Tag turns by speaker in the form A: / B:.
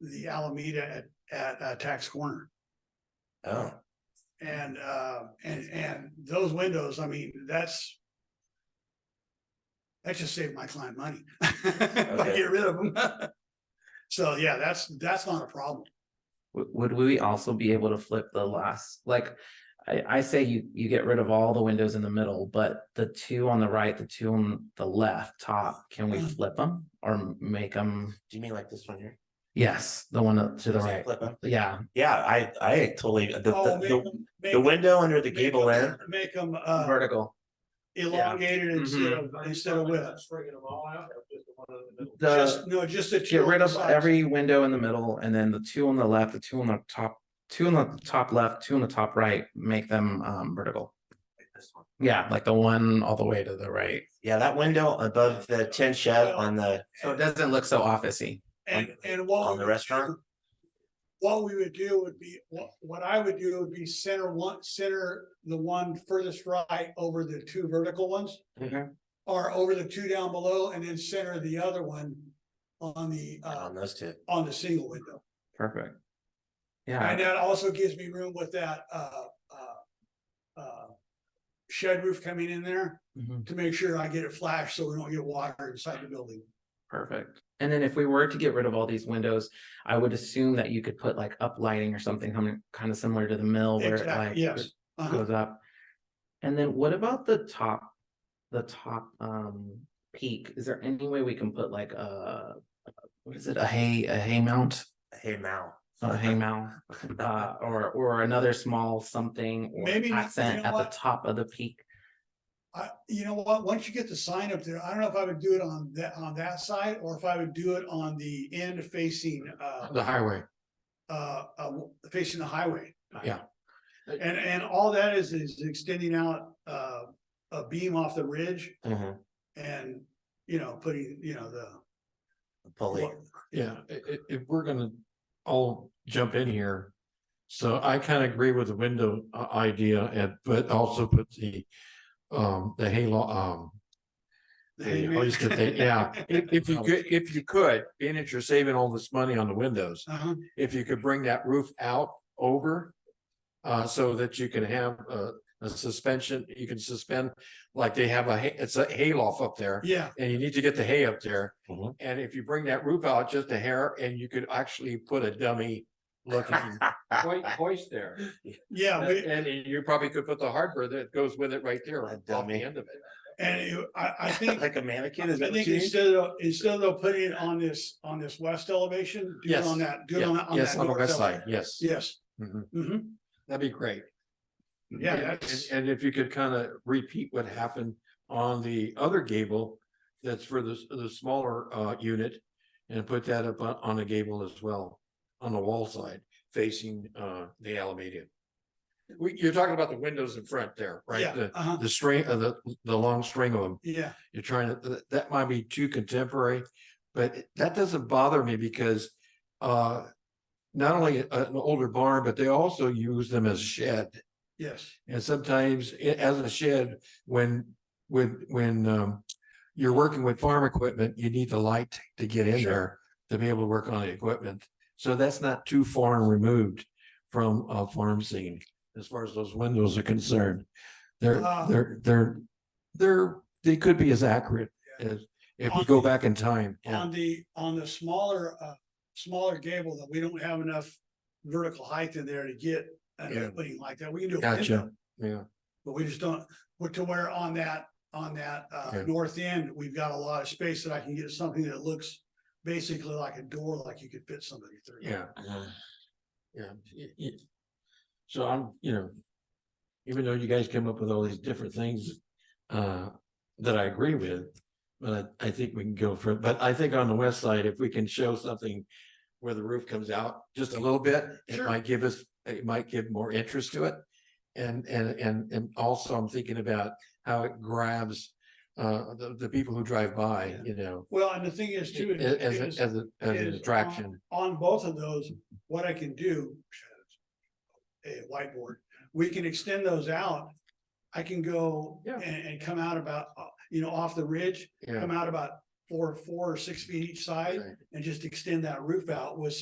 A: the Alameda at, at uh, Tax Corner.
B: Oh,
A: And, uh, and, and those windows, I mean, that's. That just saved my client money. I
B: Okay.
A: get rid of them. So, yeah, that's, that's not a problem.
B: would, would we also be able to flip the last, like, I, I say you, you get rid of all the windows in the middle, but the two on the right, the two on the left top, can we
A: Mhm.
B: flip them or make them?
C: Do you mean like this one here?
B: Yes, the one to the right.
C: Flip 'em?
B: Yeah,
C: Yeah, I, I totally, the, the,
A: Oh, make
C: the,
A: 'em-
C: the
A: make 'em-
C: window under the
A: make 'em-
C: gable end,
A: Make them, uh,
B: vertical.
A: elongated instead
B: Mhm.
C: Mm-hmm.
A: of, instead of width.
B: The,
A: Just, no, just that.
B: get rid of every window in the middle and then the two on the left, the two on the top, two on the top left, two on the top right, make them um vertical.
C: this one.
B: Yeah, like the one all the way to the right.
C: yeah, that window above the tin shed on the,
B: So it doesn't look so officey.
A: And, and what.
C: on
A: we
C: the
A: would
C: restaurant?
A: do- What we would do would be, what, what I would do would be center one, center the one furthest right over the two vertical ones.
C: Mm-hmm.
B: Mhm.
A: Or over the two down below and then center the other one on the, uh,
C: on those two.
A: on the single window.
B: Perfect.
A: And
B: Yeah,
A: that also gives me room with that, uh, uh, uh, shed roof coming in there
B: mhm,
A: to make sure I get it flashed so we don't get water inside the building.
B: perfect. And then if we were to get rid of all these windows, I would assume that you could put like up lighting or something coming kind of similar to the mill where it like
A: Exactly, yes. Uh-huh.
B: goes up. And then what about the top, the top um peak? Is there any way we can put like a, what is it, a hay, a hay mount?
C: Hey, Mal.
B: A hay mount, uh, or or another small something or
A: Maybe, you
B: accent
A: know
B: at the
A: what?
B: top of the peak?
A: I, you know what, once you get the sign up there, I don't know if I would do it on that, on that side, or if I would do it on the end facing, uh,
D: The highway,
A: uh, uh, facing the highway.
D: Yeah.
A: And, and all that is, is extending out, uh, a beam off the ridge
C: Mhm,
A: and, you know, putting, you know, the.
C: the Pulley.
D: Oh, yeah, i- i- if we're gonna all jump in here. So I kind of agree with the window uh, idea and but also put the um the halo um.
A: the
D: the
A: hangman.
D: hoisted thing- Yeah, Um, if if you could, if you could, being that you're saving all this money on the windows,
A: Uh-huh.
D: if you could bring that roof out over. Uh, so that you can have a a suspension, you can suspend, like they have a, hay- it's a hayloft up there.
A: Yeah,
D: and you need to get the hay up there.
C: Mhm.
D: And if you bring that roof out just a hair and you could actually put a dummy looking hoi- hoist there.
A: yeah,
D: And
A: we,
D: and you probably could put the hardware that goes with it right there
C: A
D: off the
C: dummy.
D: end of it.
A: and it- I, I think, I
C: Like a mannequin, is that what
A: think
C: you mean?
A: instead of, instead of putting it on this, on this west elevation, do it
D: Yes.
A: on that, do it on
D: Yeah,
A: that. on
D: Yes,
A: that
D: on the
A: north
D: west
A: elevation.
D: side, yes.
A: Yes.
D: Mhm.
A: Mm-hmm.
D: That'd be great.
A: Yeah,
D: And- And
A: that's-
D: and if you could kind of repeat what happened on the other gable, that's for the, s- the smaller uh unit. And put that up on, on the gable as well, on the wall side facing uh the Alameda. We, you're talking about the windows in front there,
A: Yeah,
D: right? The,
A: uh-huh,
D: the string, uh, the, the long string of them.
A: yeah,
D: You're trying to, that- that might be too contemporary, but it- that doesn't bother me because uh. Not only a- an older barn, but they also use them as shed.
A: yes,
D: And sometimes it as a shed, when, when, when, um, you're working with farm equipment, you need the light to get in
A: Sure.
D: there to be able to work on the equipment. So that's not too far removed from a farm scene as far as those windows are concerned. They're,
A: Uh.
D: they're, they're, they're, they could be as accurate as if we go back in time.
A: on the, on the smaller, uh, smaller gable that we don't have enough vertical height in there to get an
D: Yeah.
A: opening like that, we can do. a
D: Gotcha.
A: window,
D: Yeah,
A: But we just don't, but to where on that, on that, uh,
D: Yeah.
A: north end, we've got a lot of space that I can get something that looks basically like a door, like you could fit somebody through.
D: yeah,
C: Mhm.
D: yeah. Y- y- So I'm, you know, even though you guys came up with all these different things uh that I agree with. But I I think we can go for it. But I think on the west side, if we can show something where the roof comes out just a little bit, it
A: Sure.
D: might give us, it might give more interest to it. And and and and also I'm thinking about how it grabs uh the the people who drive by, you know.
A: Well, and the thing is too. is-
D: a- As
A: is-
D: a as a
A: is
D: as
A: uh,
D: an
A: on-
D: attraction.
A: on both of those, what I can do. A whiteboard, we can extend those out. I can go
D: Yeah.
A: and, and come out about, uh, you know, off the ridge,
D: Yeah.
A: come out about four, four or six feet each side
D: Right.
A: and just extend that roof out with